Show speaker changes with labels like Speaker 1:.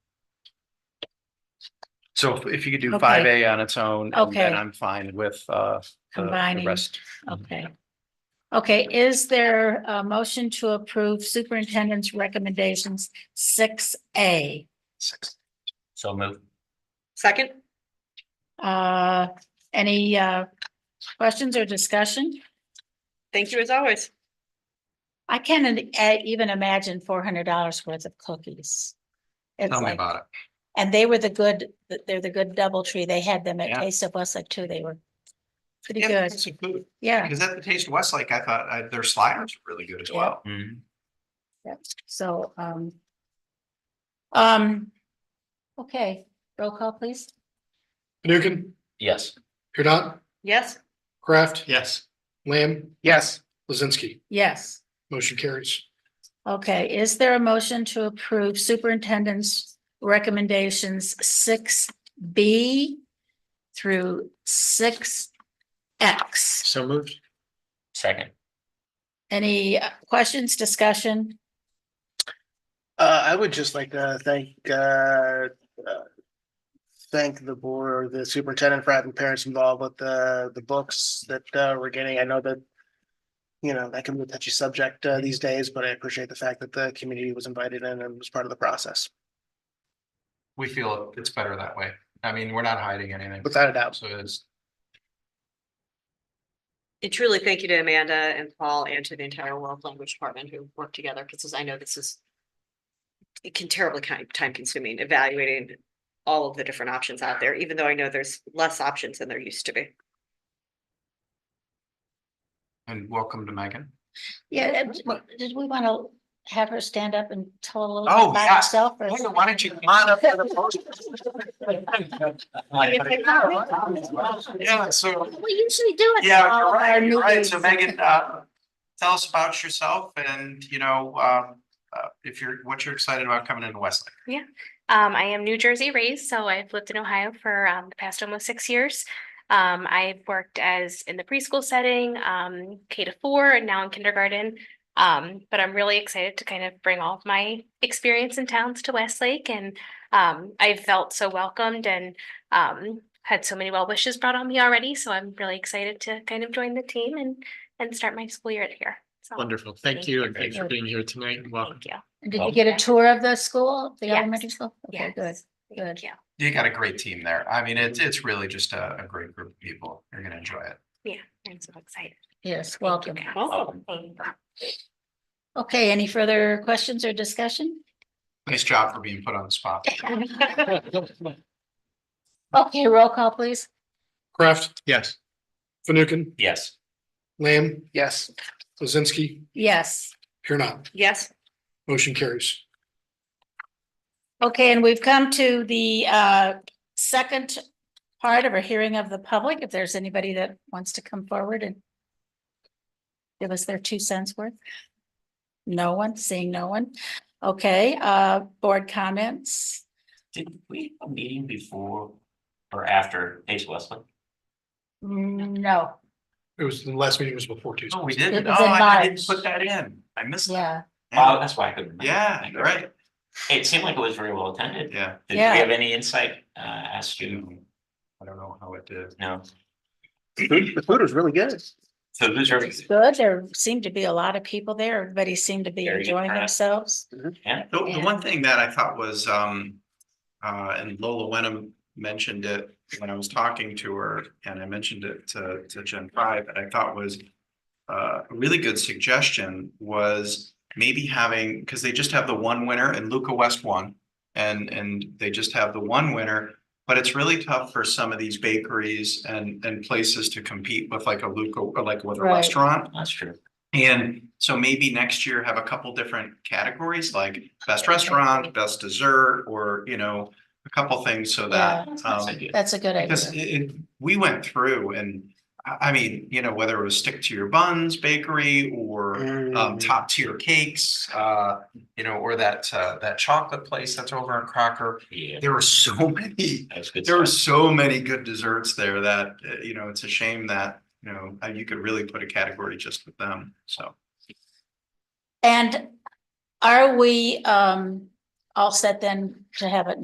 Speaker 1: So if- if you could do
Speaker 2: Okay.
Speaker 1: five A on its own, and
Speaker 2: Okay.
Speaker 1: then I'm fine with uh. the- the
Speaker 2: Combining.
Speaker 1: rest.
Speaker 2: Okay. Okay, is there a motion to approve superintendent's recommendations six A?
Speaker 1: Six. So move.
Speaker 3: Second?
Speaker 2: Uh, any uh questions or discussion?
Speaker 3: Thank you as always.
Speaker 2: I can't in- eh, even imagine four hundred dollars worth of cookies. It's
Speaker 1: Tell me
Speaker 2: like,
Speaker 1: about it.
Speaker 2: and they were the good, they're the good double tree. They had them at
Speaker 1: Yeah.
Speaker 2: Taste of Westlake too. They were pretty
Speaker 4: Yeah,
Speaker 2: good.
Speaker 4: that's some food.
Speaker 2: Yeah.
Speaker 4: Because at the Taste of Westlake, I thought uh, their sliders were really good as
Speaker 2: Yeah.
Speaker 4: well.
Speaker 2: Yep, so, um. Um. Okay, roll call, please.
Speaker 5: Fanukin,
Speaker 1: Yes.
Speaker 5: Kurdot,
Speaker 3: Yes,
Speaker 5: Kraft,
Speaker 4: Yes.
Speaker 5: Lamb,
Speaker 4: Yes.
Speaker 5: Lizinsky.
Speaker 2: Yes.
Speaker 5: Motion carries.
Speaker 2: Okay, is there a motion to approve superintendent's recommendations six B through six X?
Speaker 4: So moved.
Speaker 1: Second.
Speaker 2: Any uh, questions, discussion?
Speaker 6: Uh, I would just like to thank, uh, uh, thank the board, or the superintendent for having parents involved with the, the books that, uh, we're getting. I know that, you know, that can be a touchy subject, uh, these days, but I appreciate the fact that the community was invited in and was part of the process,
Speaker 4: We feel it's better that way. I mean, we're not hiding anything.
Speaker 6: without a doubt.
Speaker 4: So it's,
Speaker 3: and truly thank you to Amanda and Paul and to the entire World Language Department who worked together, because I know this is it can terribly kind, time consuming evaluating all of the different options out there, even though I know there's less options than there used to be.
Speaker 4: and welcome to Megan.
Speaker 2: Yeah, uh, what- did we want to have her stand up and tell a little
Speaker 4: Oh,
Speaker 2: bit about
Speaker 4: yeah.
Speaker 2: herself? or-
Speaker 4: Megan, why don't you come on up for the podium? Yeah, so,
Speaker 2: We usually do it.
Speaker 4: yeah,
Speaker 2: for all
Speaker 4: you're
Speaker 2: of our
Speaker 4: right,
Speaker 2: new
Speaker 4: you're right. So
Speaker 2: babies.
Speaker 4: Megan, uh, tell us about yourself and, you know, um, uh, if you're, what you're excited about coming into Westlake.
Speaker 7: Um, I am New Jersey raised, so I've lived in Ohio for um, the past almost six years. Um, I've worked as in the preschool setting, um, K to four, and now in kindergarten. Um, but I'm really excited to kind of bring all of my experience and talents to Westlake, and um, I felt so welcomed and um, had so many well wishes brought on me already. So I'm really excited to kind of join the team and and start my school year here. So
Speaker 8: Wonderful.
Speaker 7: Thank
Speaker 8: Thank you and thanks
Speaker 2: you.
Speaker 8: for being here tonight and welcome.
Speaker 7: Thank you.
Speaker 2: Did you get a tour of the school, the
Speaker 7: Yes.
Speaker 2: elementary school? Okay, good.
Speaker 7: Yes.
Speaker 2: good.
Speaker 7: Thank you.
Speaker 4: You got a great team there. I mean, it's, it's really just a, a great group of people. You're gonna enjoy it.
Speaker 7: Yeah, I'm so excited.
Speaker 2: Yes,
Speaker 7: Thank you,
Speaker 2: welcome.
Speaker 7: guys.
Speaker 3: Welcome.
Speaker 7: Thank you.
Speaker 2: Okay, any further questions or discussion?
Speaker 4: Nice job for being put on the spot.
Speaker 2: Okay, roll call, please.
Speaker 5: Kraft,
Speaker 8: Yes.
Speaker 5: Fanukin,
Speaker 1: Yes.
Speaker 5: Lamb,
Speaker 6: Yes.
Speaker 5: Lizinsky,
Speaker 2: Yes.
Speaker 5: Kurnat.
Speaker 3: Yes,
Speaker 5: Motion carries.
Speaker 2: Okay, and we've come to the uh second part of our hearing of the public. If there's anybody that wants to come forward and give us their two cents worth. No one, seeing no one. Okay, uh, board comments.
Speaker 9: Did we have a meeting before or after Ace Westlake?
Speaker 2: No,
Speaker 5: It was, the last meeting was before Tuesday.
Speaker 4: No, we
Speaker 2: It
Speaker 4: didn't. Oh,
Speaker 2: was in
Speaker 4: I didn't
Speaker 2: March.
Speaker 4: put that in. I missed. that.
Speaker 2: yeah.
Speaker 9: Oh, that's why I couldn't. remember.
Speaker 4: Yeah, you're right.
Speaker 9: It seemed like it was very well attended.
Speaker 4: Yeah.
Speaker 9: Did we
Speaker 2: Yeah.
Speaker 9: have any insight, uh, as
Speaker 4: I
Speaker 9: to,
Speaker 4: don't know how it did.
Speaker 9: no,
Speaker 6: The food was really good.
Speaker 9: so those are,
Speaker 2: It's good. There seemed to be a lot of people there. Everybody seemed to be
Speaker 9: Very good
Speaker 2: enjoying
Speaker 9: turnout.
Speaker 2: themselves.
Speaker 9: yeah,
Speaker 4: The, the
Speaker 2: Yeah.
Speaker 4: one thing that I thought was, um, uh, and Lola Wenham mentioned it when I was talking to her, and I mentioned it to, to Gen Five, that I thought was uh, a really good suggestion was maybe having, because they just have the one winner and Luca West won. And, and they just have the one winner, but it's really tough for some of these bakeries and, and places to compete with like a Luca, or like with a
Speaker 2: Right.
Speaker 4: restaurant.
Speaker 9: that's true.
Speaker 4: And so maybe next year have a couple different categories like best restaurant, best dessert, or, you know, a couple things so that.
Speaker 9: That's a nice
Speaker 4: Um,
Speaker 9: idea.
Speaker 2: That's a good idea.
Speaker 4: because it, it- we went through and, I, I mean, you know, whether it was stick to your buns bakery or
Speaker 9: Mm-hmm.
Speaker 4: um,
Speaker 6: Mm.
Speaker 4: top tier cakes, uh, you know, or that, uh, that chocolate place that's over in Crocker.
Speaker 9: Yeah,
Speaker 4: There were so many
Speaker 9: that was good.
Speaker 4: there were
Speaker 9: stuff.
Speaker 4: so many good desserts there that, uh, you know, it's a shame that, you know, uh, you could really put a category just with them, so.
Speaker 2: And are we um all set then to have it